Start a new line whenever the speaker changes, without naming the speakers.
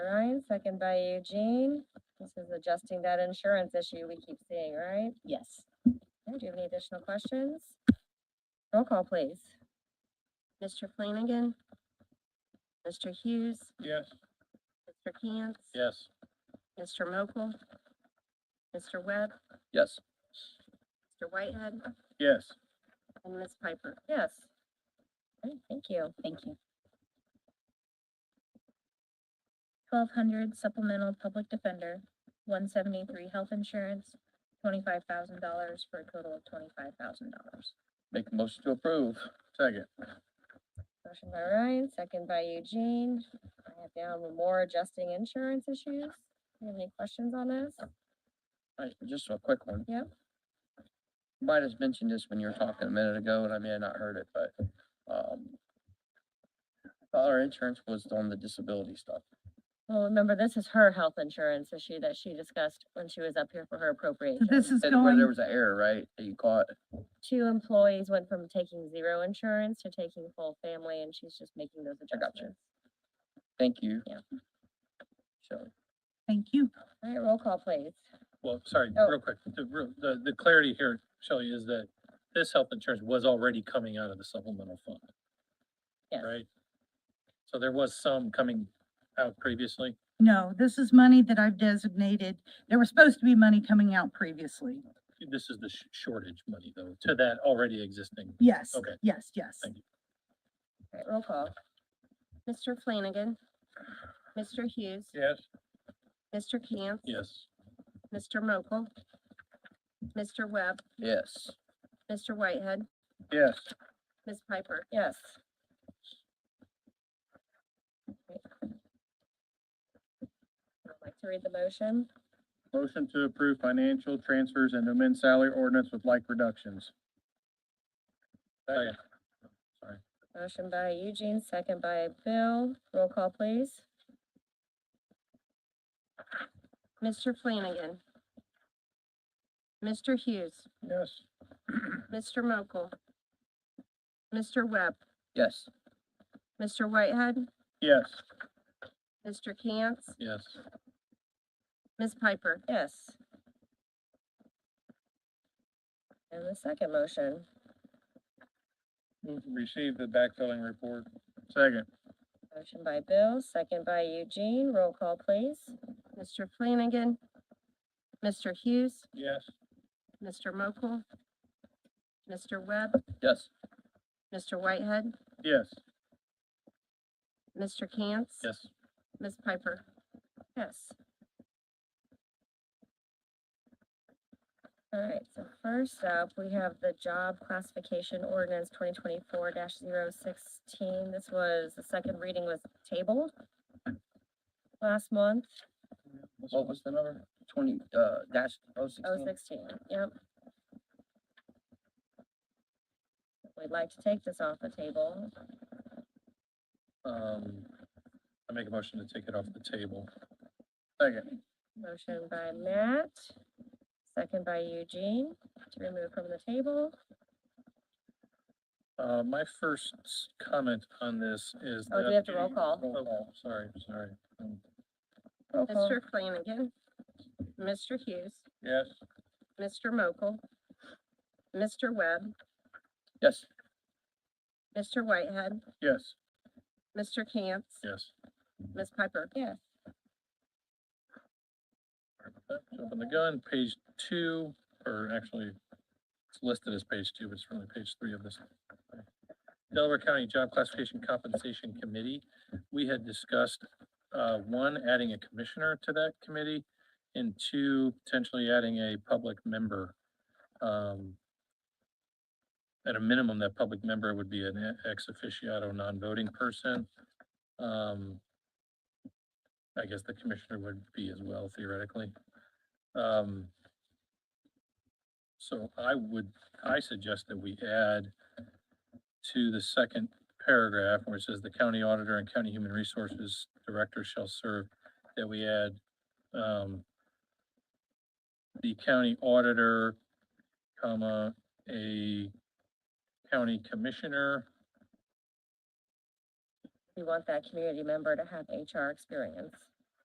second by Eugene. This is adjusting that insurance issue we keep seeing, right?
Yes.
Okay, Do you have any additional questions? Roll call, please. Mr. Flanagan. Mr. Hughes.
Yes.
Mr. Cantz.
Yes.
Mr. Mokel. Mr. Webb.
Yes.
Mr. Whitehead.
Yes.
And Ms. Piper. Yes. Okay, thank you.
Thank you. Twelve hundred supplemental public defender, one seventy-three health insurance, twenty-five thousand dollars for a total of twenty-five thousand dollars.
Make a motion to approve. Second.
Motion by Ryan, second by Eugene. I have down with more adjusting insurance issues. You have any questions on this?
Right, just a quick one.
Yep.
Might have mentioned this when you were talking a minute ago, and I may have not heard it, but, um, thought our insurance was on the disability stuff.
Well, remember, this is her health insurance issue that she discussed when she was up here for her appropriation.
This is
That's where there
going,
was an error, right, that you caught?
Two employees went from taking zero insurance to taking full family, and she's just making those
I got you.
adjustments.
Thank you.
Yeah.
So,
thank you.
All right, roll call, please.
Well, sorry,
Oh.
real quick, the, real- the, the clarity here, Shelley, is that this health insurance was already coming out of the supplemental fund.
Yes.
Right? So there was some coming out previously.
No, this is money that I've designated. There was supposed to be money coming out previously.
This is the sh- shortage money though, to that already existing.
Yes,
Okay.
yes, yes.
Thank you.
All right, roll call. Mr. Flanagan. Mr. Hughes.
Yes.
Mr. Cantz.
Yes.
Mr. Mokel. Mr. Webb.
yes,
Mr. Whitehead.
Yes.
Ms. Piper. Yes. Great. I'd like to read the motion.
Motion to approve financial transfers and amend salary ordinance with like reductions. Second.
Motion by Eugene, second by Bill. Roll call, please. Mr. Flanagan. Mr. Hughes.
Yes.
Mr. Mokel. Mr. Webb.
yes,
Mr. Whitehead.
Yes.
Mr. Cantz.
Yes.
Ms. Piper? Yes. And the second motion,
Move to receive the backfilling report. Second.
motion by Bill, second by Eugene, roll call please. Mr. Flanagan. Mr. Hughes.
Yes.
Mr. Mokel. Mr. Webb.
yes,
Mr. Whitehead.
Yes.
Mr. Cantz.
Yes.
Ms. Piper? Yes. All right, so first up, we have the job classification ordinance twenty twenty-four 16 This was, the second reading was tabled last month,
what was the number? Twenty, uh, dash, oh,
oh
sixteen?
sixteen, yep. We'd like to take this off the table.
Um, I make a motion to take it off the table. Second.
Motion by Matt, second by Eugene to remove from the table.
Uh, my first s- comment on this is.
Oh, do
that-
we have to roll call?
Roll call, sorry, sorry. Um,
Roll call. Mr. Flanagan. Mr. Hughes.
Yes.
Mr. Mokel. Mr. Webb.
Yes,
Mr. Whitehead.
Yes.
Mr. Cantz.
Yes.
Ms. Piper. Yes.
Open the gun, page two, or actually, it's listed as page two, but it's really page three of this. Delaware County Job Classification Compensation Committee, we had discussed, uh, one, adding a commissioner to that committee, and two, potentially adding a public member. Um, At a minimum, that public member would be an e-, ex officiato non-voting person. Um, I guess the commissioner would be as well theoretically. Um, so I would, I suggest that we add to the second paragraph where it says the county auditor and county human resources director shall serve, that we add, um, the county auditor, comma, a county commissioner,
We want that community member to have HR experience.